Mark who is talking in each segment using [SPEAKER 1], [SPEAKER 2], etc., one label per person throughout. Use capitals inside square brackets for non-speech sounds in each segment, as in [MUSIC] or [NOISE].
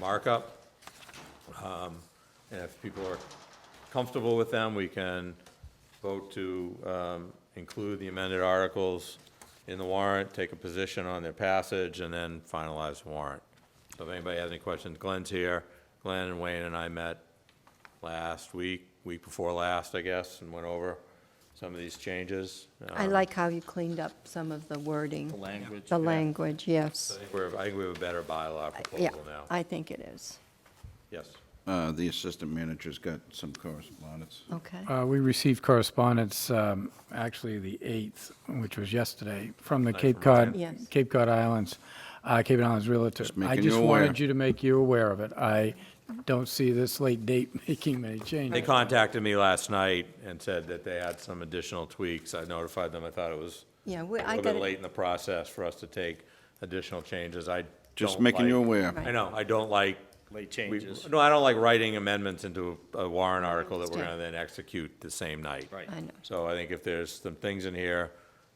[SPEAKER 1] markup. Um, And if people are comfortable with them, we can vote to um, include the amended articles in the warrant, take a position on their passage, and then finalize the warrant. So if anybody has any questions, Glenn's here. Glenn and Wayne and I met last week, week before last, I guess, and went over some of these changes. Uh,
[SPEAKER 2] I like how you cleaned up some of the wording. The language. The language,
[SPEAKER 1] I
[SPEAKER 2] yes.
[SPEAKER 1] think we're, I think we have a better bylaw
[SPEAKER 2] Yeah,
[SPEAKER 1] proposal now.
[SPEAKER 2] I think it is.
[SPEAKER 1] Yes.
[SPEAKER 3] Uh, The assistant manager's got some correspondence.
[SPEAKER 2] Okay.
[SPEAKER 4] Uh, We received correspondence, um, actually the 8th, which was yesterday, from the Cape
[SPEAKER 1] from Ryan.
[SPEAKER 4] Cod,
[SPEAKER 2] Yes.
[SPEAKER 4] Cape Cod Islands, uh, Cape Islands Realtor. I
[SPEAKER 3] making you
[SPEAKER 4] just
[SPEAKER 3] aware.
[SPEAKER 4] wanted you to make you aware of it. I don't see this late date [LAUGHS] making many
[SPEAKER 1] They
[SPEAKER 4] changes.
[SPEAKER 1] contacted me last night and said that they had some additional tweaks. I notified them. I thought it was
[SPEAKER 2] Yeah,
[SPEAKER 1] a
[SPEAKER 2] we-
[SPEAKER 1] little
[SPEAKER 2] I got
[SPEAKER 1] bit
[SPEAKER 2] it.
[SPEAKER 1] late in the process for us to take additional changes. I
[SPEAKER 3] Just
[SPEAKER 1] don't
[SPEAKER 3] making you
[SPEAKER 1] like-
[SPEAKER 3] aware.
[SPEAKER 2] Right.
[SPEAKER 1] I know, I don't like.
[SPEAKER 5] Late
[SPEAKER 1] we-
[SPEAKER 5] changes.
[SPEAKER 1] No, I don't like writing amendments into a warrant article that we're
[SPEAKER 2] understand.
[SPEAKER 1] gonna then execute the same night.
[SPEAKER 5] Right.
[SPEAKER 2] I know.
[SPEAKER 1] So I think if there's some things in here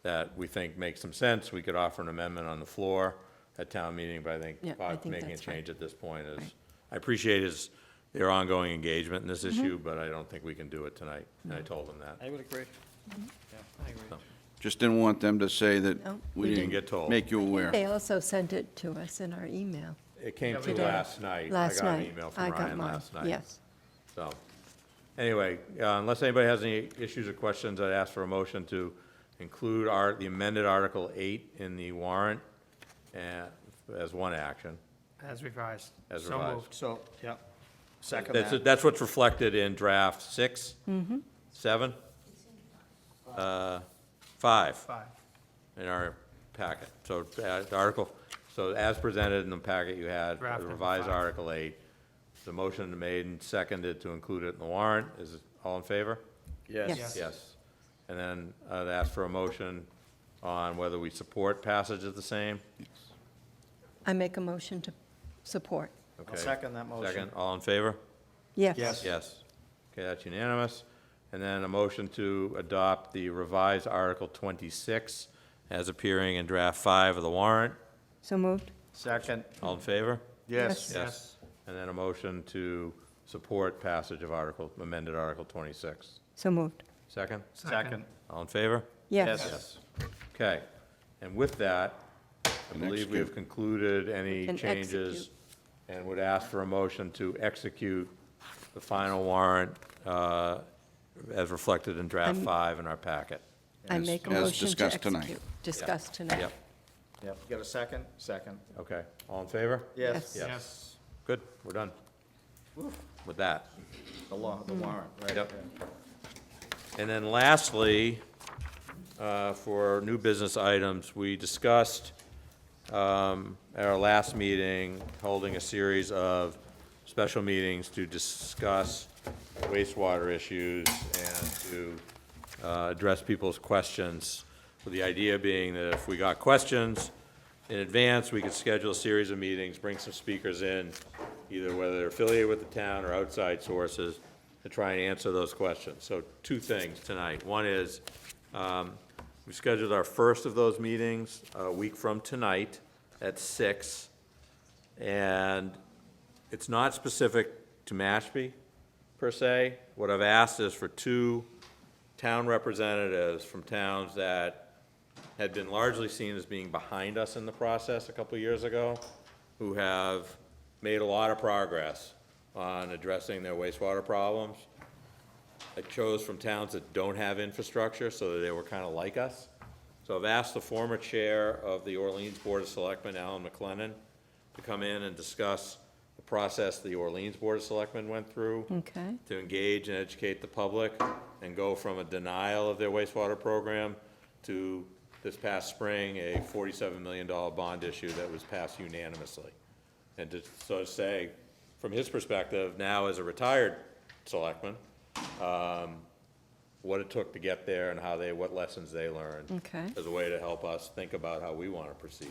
[SPEAKER 1] that we think make some sense, we could offer an amendment on the floor at town meeting, but I
[SPEAKER 2] Yeah, I
[SPEAKER 1] think Bob
[SPEAKER 2] think
[SPEAKER 1] making a
[SPEAKER 2] that's fine.
[SPEAKER 1] change at this point is,
[SPEAKER 2] Right.
[SPEAKER 1] I appreciate his, their ongoing engagement in this
[SPEAKER 2] Mm-hmm.
[SPEAKER 1] issue, but I don't think we can do it tonight, and I told them that.
[SPEAKER 5] I would agree. Yeah, I agree.
[SPEAKER 3] Just didn't want them to say that
[SPEAKER 2] No, we
[SPEAKER 3] we
[SPEAKER 2] didn't
[SPEAKER 3] didn't
[SPEAKER 1] get told.
[SPEAKER 3] make you aware.
[SPEAKER 2] They also sent it to us in our email
[SPEAKER 1] It came through
[SPEAKER 2] did.
[SPEAKER 1] last night.
[SPEAKER 2] last
[SPEAKER 1] I got an
[SPEAKER 2] night.
[SPEAKER 1] email
[SPEAKER 2] I
[SPEAKER 1] from
[SPEAKER 2] got
[SPEAKER 1] Ryan
[SPEAKER 2] mine,
[SPEAKER 1] last night.
[SPEAKER 2] Yes.
[SPEAKER 1] So, anyway, uh, unless anybody has any issues or questions, I'd ask for a motion to include our, the amended Article 8 in the warrant and, as one action.
[SPEAKER 6] As revised.
[SPEAKER 1] As
[SPEAKER 6] So
[SPEAKER 1] revised.
[SPEAKER 6] moved.
[SPEAKER 5] So, yeah, second
[SPEAKER 1] That's,
[SPEAKER 5] that.
[SPEAKER 1] that's what's reflected in draft 6 seven, uh, five
[SPEAKER 6] Five.
[SPEAKER 1] in our packet. So uh, the article, so as presented in the packet you had,
[SPEAKER 6] Draft
[SPEAKER 1] the
[SPEAKER 6] number
[SPEAKER 1] revised
[SPEAKER 6] five.
[SPEAKER 1] Article 8. The motion made and seconded to include it in the warrant. Is it all in favor?
[SPEAKER 2] Yes.
[SPEAKER 1] Yes. And then I'd ask for a motion on whether we support passage of the same.
[SPEAKER 2] I make a motion to support.
[SPEAKER 1] Okay.
[SPEAKER 5] I'll second that motion.
[SPEAKER 1] Second, all in favor?
[SPEAKER 2] Yes.
[SPEAKER 5] Yes.
[SPEAKER 1] Yes. Okay, that's unanimous. And then a motion to adopt the revised Article 26 as appearing in draft five of the warrant.
[SPEAKER 2] So moved?
[SPEAKER 5] Second,
[SPEAKER 1] All in favor?
[SPEAKER 5] yes.
[SPEAKER 1] Yes. And then a motion to support passage of Article, amended Article 26.
[SPEAKER 2] So moved.
[SPEAKER 1] Second?
[SPEAKER 5] Second,
[SPEAKER 1] All in favor?
[SPEAKER 2] Yes.
[SPEAKER 1] Yes. Okay. And with that, I
[SPEAKER 3] And
[SPEAKER 1] believe we have
[SPEAKER 3] execute.
[SPEAKER 1] concluded any
[SPEAKER 2] And
[SPEAKER 1] changes
[SPEAKER 2] execute.
[SPEAKER 1] and would ask for a motion to execute the final warrant uh, as reflected in draft
[SPEAKER 2] I'm-
[SPEAKER 1] five in our packet.
[SPEAKER 2] I
[SPEAKER 3] As-
[SPEAKER 2] make a
[SPEAKER 3] as
[SPEAKER 2] motion to
[SPEAKER 3] discussed tonight.
[SPEAKER 2] execute. Discussed tonight.
[SPEAKER 1] Yep,
[SPEAKER 5] yep, you got a second? Second,
[SPEAKER 1] okay. All in favor?
[SPEAKER 5] yes,
[SPEAKER 2] Yes.
[SPEAKER 6] Yes.
[SPEAKER 1] Good, we're done with that.
[SPEAKER 5] the law, the warrant, right.
[SPEAKER 1] Yep. And then lastly, uh, for new business items, we discussed um, at our last meeting, holding a series of special meetings to discuss wastewater issues and to uh, address people's questions, with the idea being that if we got questions in advance, we could schedule a series of meetings, bring some speakers in, either whether they're affiliated with the town or outside sources, to try and answer those questions. So two things tonight. One is, um, we scheduled our first of those meetings uh, a week from tonight at six. And it's not specific to Mashpee, per se. What I've asked is for two town representatives from towns that had been largely seen as being behind us in the process a couple years ago, who have made a lot of progress on addressing their wastewater problems. I chose from towns that don't have infrastructure, so that they were kind of like us. So I've asked the former chair of the Orleans Board of Selectmen, Alan McLennan, to come in and discuss the process the Orleans Board of Selectmen went through
[SPEAKER 2] Okay.
[SPEAKER 1] to engage and educate the public and go from a denial of their wastewater program to this past spring, a $47 million bond issue that was passed unanimously. And to sort of say, from his perspective, now as a retired selectman, um, what it took to get there and how they, what lessons they learned.
[SPEAKER 2] Okay.
[SPEAKER 1] As a way to help us think about how we want to proceed.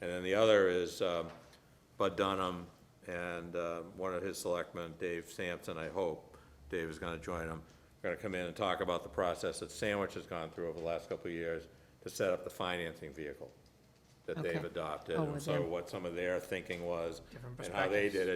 [SPEAKER 1] And then the other is um, Bud Dunham and uh, one of his selectmen, Dave Sampson, I hope, Dave is going to join them, going to come in and talk about the process that Sandwich has gone through over the last couple of years to set up the financing vehicle that they've
[SPEAKER 2] Okay.
[SPEAKER 1] adopted.
[SPEAKER 2] Oh,
[SPEAKER 1] And
[SPEAKER 2] with
[SPEAKER 1] so
[SPEAKER 2] them.
[SPEAKER 1] what some of their thinking was
[SPEAKER 6] Different
[SPEAKER 1] and how they
[SPEAKER 6] perspectives.
[SPEAKER 1] did it.